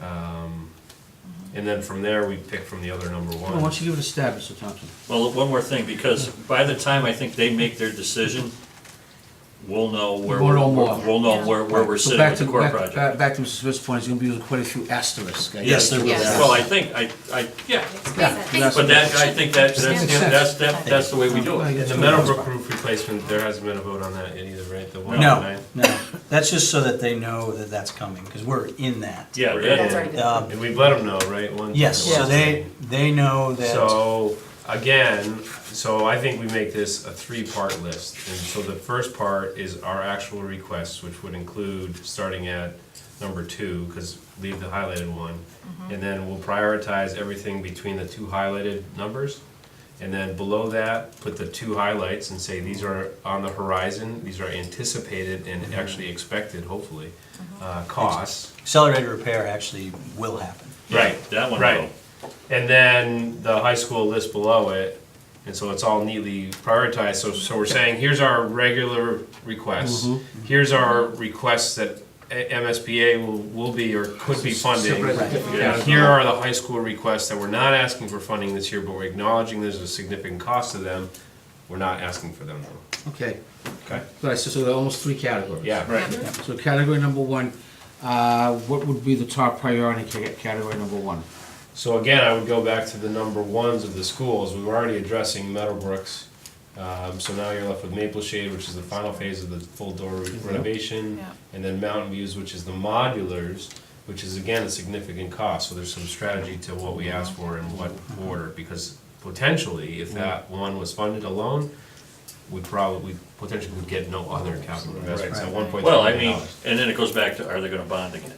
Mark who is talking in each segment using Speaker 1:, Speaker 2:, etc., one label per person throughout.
Speaker 1: Um, And then from there, we pick from the other number
Speaker 2: Why
Speaker 1: one.
Speaker 2: don't you give it a stab, Mr. Thompson?
Speaker 3: Well, one more thing, because by the time I think they make their decision, we'll know where,
Speaker 2: We'll
Speaker 3: we're-
Speaker 2: know more.
Speaker 3: we'll know where, where we're
Speaker 2: So
Speaker 3: sitting
Speaker 2: back
Speaker 3: with the
Speaker 2: to-
Speaker 3: core
Speaker 2: back-
Speaker 3: project.
Speaker 2: back- Back to Mr. Smith's point, it's gonna be quite a few asterisks. I
Speaker 3: Yes,
Speaker 2: guess.
Speaker 3: there will be.
Speaker 4: Yes.
Speaker 3: Well, I think, I, I, yeah,
Speaker 2: Yeah,
Speaker 3: but that, I think that, that's,
Speaker 2: Makes
Speaker 3: the-
Speaker 2: sense.
Speaker 3: that's, that- that's the way we do it.
Speaker 1: And the Meadowbrook roof replacement, there hasn't been a vote on that yet either, right? The one on
Speaker 5: No,
Speaker 1: nine?
Speaker 5: no, that's just so that they know that that's coming, because we're in that.
Speaker 3: Yeah,
Speaker 1: That's
Speaker 3: that,
Speaker 1: already
Speaker 5: Um,
Speaker 1: And we've let them know, right? One-
Speaker 5: Yes, so
Speaker 1: one
Speaker 5: they,
Speaker 1: thing.
Speaker 5: they know that,
Speaker 1: So, again, so I think we make this a three-part list. And so the first part is our actual requests, which would include, starting at number two, because leave the highlighted one. And then we'll prioritize everything between the two highlighted numbers. And then below that, put the two highlights and say, these are on the horizon, these are anticipated and actually expected, hopefully, uh, costs.
Speaker 5: accelerated repair actually will happen.
Speaker 1: Right,
Speaker 3: that one
Speaker 1: Right.
Speaker 3: will.
Speaker 1: And then the high school list below it, and so it's all neatly prioritized, so, so we're saying, here's our regular requests. Here's our requests that A- MSBA will, will be or could be funding.
Speaker 2: Separate
Speaker 5: certificates.
Speaker 1: Yeah, Here are the high school requests that we're not asking for funding this year, but we're acknowledging there's a significant cost to them. We're not asking for them though.
Speaker 2: Okay,
Speaker 1: Okay.
Speaker 2: right, so so there are almost three categories.
Speaker 1: Yeah,
Speaker 4: Right.
Speaker 2: So category number one, uh, what would be the top priority ca- category number one?
Speaker 1: So again, I would go back to the number ones of the schools. We were already addressing Meadowbrook's. Um, so now you're left with Maple Shade, which is the final phase of the full door
Speaker 3: Mm-hmm.
Speaker 1: renovation.
Speaker 4: Yeah.
Speaker 1: And then Mountain Views, which is the modulars, which is again a significant cost. So there's some strategy to what we ask for and what order, because potentially,
Speaker 3: Mm-hmm.
Speaker 1: if that one was funded alone, we probably, we potentially would get no other capital investments at one point.
Speaker 3: Well, I mean, and then it goes back to, are they gonna bond again?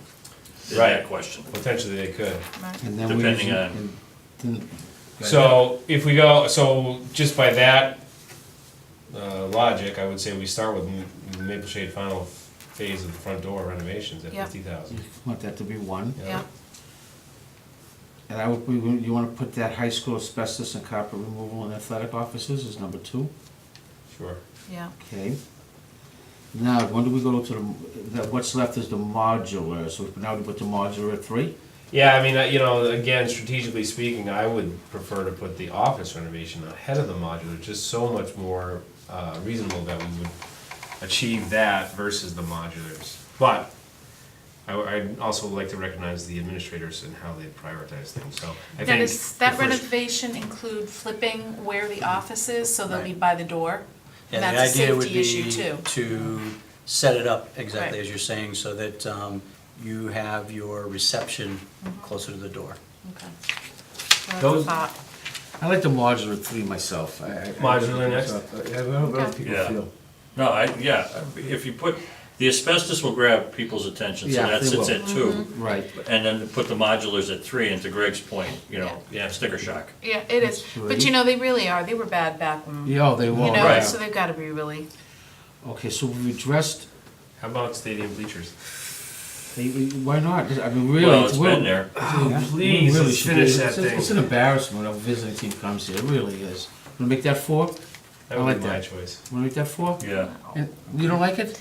Speaker 3: Is that
Speaker 1: Right.
Speaker 3: question?
Speaker 1: Potentially they could.
Speaker 2: And then we
Speaker 3: Depending
Speaker 2: usually-
Speaker 3: on-
Speaker 2: and then-
Speaker 1: So if we go, so just by that uh, logic, I would say we start with M- Maple Shade final phase of the front door renovations at
Speaker 4: Yeah.
Speaker 1: fifty thousand.
Speaker 2: Want that to be one,
Speaker 4: Yeah,
Speaker 2: and I would, we- you wanna put that high school asbestos and copper removal in athletic offices as number two?
Speaker 1: Sure.
Speaker 4: yeah.
Speaker 2: Okay. Now, when do we go to the, the, what's left is the modular, so now we put the modular at three?
Speaker 1: Yeah, I mean, I- you know, again, strategically speaking, I would prefer to put the office renovation ahead of the modular, just so much more uh, reasonable that we would achieve that versus the modulars. But I, would also like to recognize the administrators and how they prioritize things, so I
Speaker 6: Now,
Speaker 1: think.
Speaker 6: does that
Speaker 1: the first-
Speaker 6: renovation include flipping where the office is, so they'll be by the door?
Speaker 5: Yeah,
Speaker 6: And
Speaker 5: the
Speaker 6: that's a
Speaker 5: idea would
Speaker 6: safety
Speaker 5: be
Speaker 6: issue too.
Speaker 5: to set it up exactly
Speaker 6: Right.
Speaker 5: as you're saying, so that um, you have your reception
Speaker 6: Mm-hmm.
Speaker 5: closer to the door.
Speaker 6: Okay. That's a
Speaker 1: Those-
Speaker 6: thought.
Speaker 2: I like the modular at three myself. I- I- I-
Speaker 1: Modular next.
Speaker 2: I don't know what people
Speaker 3: Yeah.
Speaker 2: feel.
Speaker 3: No, I, yeah, if you put, the asbestos will grab people's attention, so
Speaker 2: Yeah,
Speaker 3: that
Speaker 2: they
Speaker 3: sits
Speaker 2: will.
Speaker 3: at two.
Speaker 1: Mm-hmm.
Speaker 2: Right.
Speaker 3: And then put the modulars at three, and to Greg's point, you know,
Speaker 1: Yeah.
Speaker 3: sticker shock.
Speaker 6: Yeah, it is, but you know, they really are, they were bad back when, you
Speaker 2: Yeah, they will.
Speaker 6: know,
Speaker 3: right.
Speaker 6: so they've gotta be really,
Speaker 2: Okay, so we addressed,
Speaker 1: How about stadium bleachers?
Speaker 2: they- why not? I mean, really.
Speaker 3: Well, it's
Speaker 2: we're-
Speaker 3: been there.
Speaker 6: Oh,
Speaker 2: yeah, we
Speaker 1: please,
Speaker 2: really
Speaker 1: let's
Speaker 2: should
Speaker 1: finish
Speaker 2: do-
Speaker 1: that
Speaker 2: it's- It's
Speaker 1: thing.
Speaker 2: an embarrassment when a visiting team comes here, it really is. Wanna make that four?
Speaker 1: That
Speaker 2: I
Speaker 1: would
Speaker 2: like
Speaker 1: be my
Speaker 2: that.
Speaker 1: choice.
Speaker 2: Wanna make that four?
Speaker 3: Yeah.
Speaker 2: And You don't like it?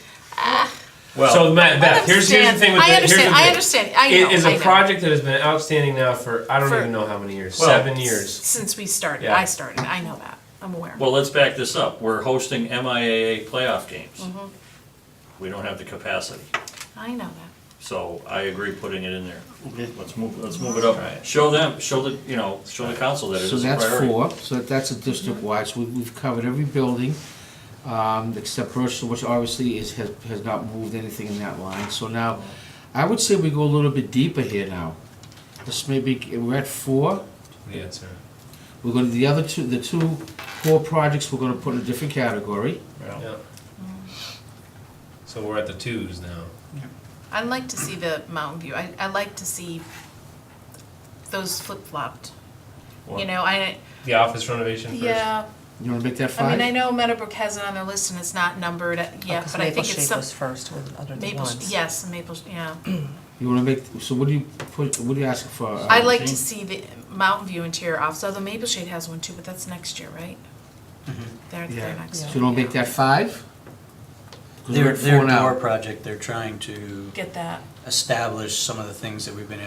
Speaker 1: so Matt,
Speaker 6: I
Speaker 1: Beth, here's, here's the thing with the, here's
Speaker 6: understand. I
Speaker 1: the
Speaker 6: understand, I
Speaker 1: thing.
Speaker 6: understand, I know,
Speaker 1: It is
Speaker 6: I
Speaker 1: a
Speaker 6: know.
Speaker 1: project that has been outstanding now for I don't
Speaker 6: For-
Speaker 1: even know how many years.
Speaker 3: Well,
Speaker 1: seven years.
Speaker 6: Since we started,
Speaker 1: Yeah.
Speaker 6: I started, I know that, I'm aware.
Speaker 3: Well, let's back this up. We're hosting MIAA playoff games. We don't have the capacity.
Speaker 6: I know that.
Speaker 3: So I agree putting it in there.
Speaker 2: Okay.
Speaker 3: Let's move, let's move it up. Show them, show the, you know, show the council that it
Speaker 2: So
Speaker 3: is a
Speaker 2: that's
Speaker 3: priority.
Speaker 2: four, so that's a district-wide, so we- we've covered every building, um, except Bristol, which obviously is, has, has not moved anything in that line. So now, I would say we go a little bit deeper here now. This may be, we're at four,
Speaker 1: The answer.
Speaker 2: we're gonna, the other two, the two core projects, we're gonna put in a different category.
Speaker 3: Yeah.
Speaker 1: Yeah. So we're at the twos now.
Speaker 6: I'd like to see the Mountain View, I, I like to see those flip-flopped, you
Speaker 1: What?
Speaker 6: know, I,
Speaker 1: The office renovation first.
Speaker 6: yeah,
Speaker 2: You wanna make that
Speaker 6: I mean, I
Speaker 2: five?
Speaker 6: know Meadowbrook has it on their list and it's not numbered yet, but I think it's
Speaker 4: Oh, Maple
Speaker 6: some,
Speaker 4: Shade was first with, under the
Speaker 6: Maple,
Speaker 4: ones.
Speaker 6: yes, Maple, yeah.
Speaker 2: You wanna make, so what do you put, what do you ask for? uh,
Speaker 6: I'd like to
Speaker 3: Jean?
Speaker 6: see the Mountain View interior office, although Maple Shade has one too, but that's next year, right? They're,
Speaker 2: Mm-hmm. Yeah.
Speaker 6: they're next year.
Speaker 2: So you don't make
Speaker 6: yeah.
Speaker 2: that five? 'Cause we're
Speaker 5: Their,
Speaker 2: at
Speaker 5: their
Speaker 2: four now.
Speaker 5: door project, they're trying to
Speaker 6: Get that.
Speaker 5: establish some of the things that we've been able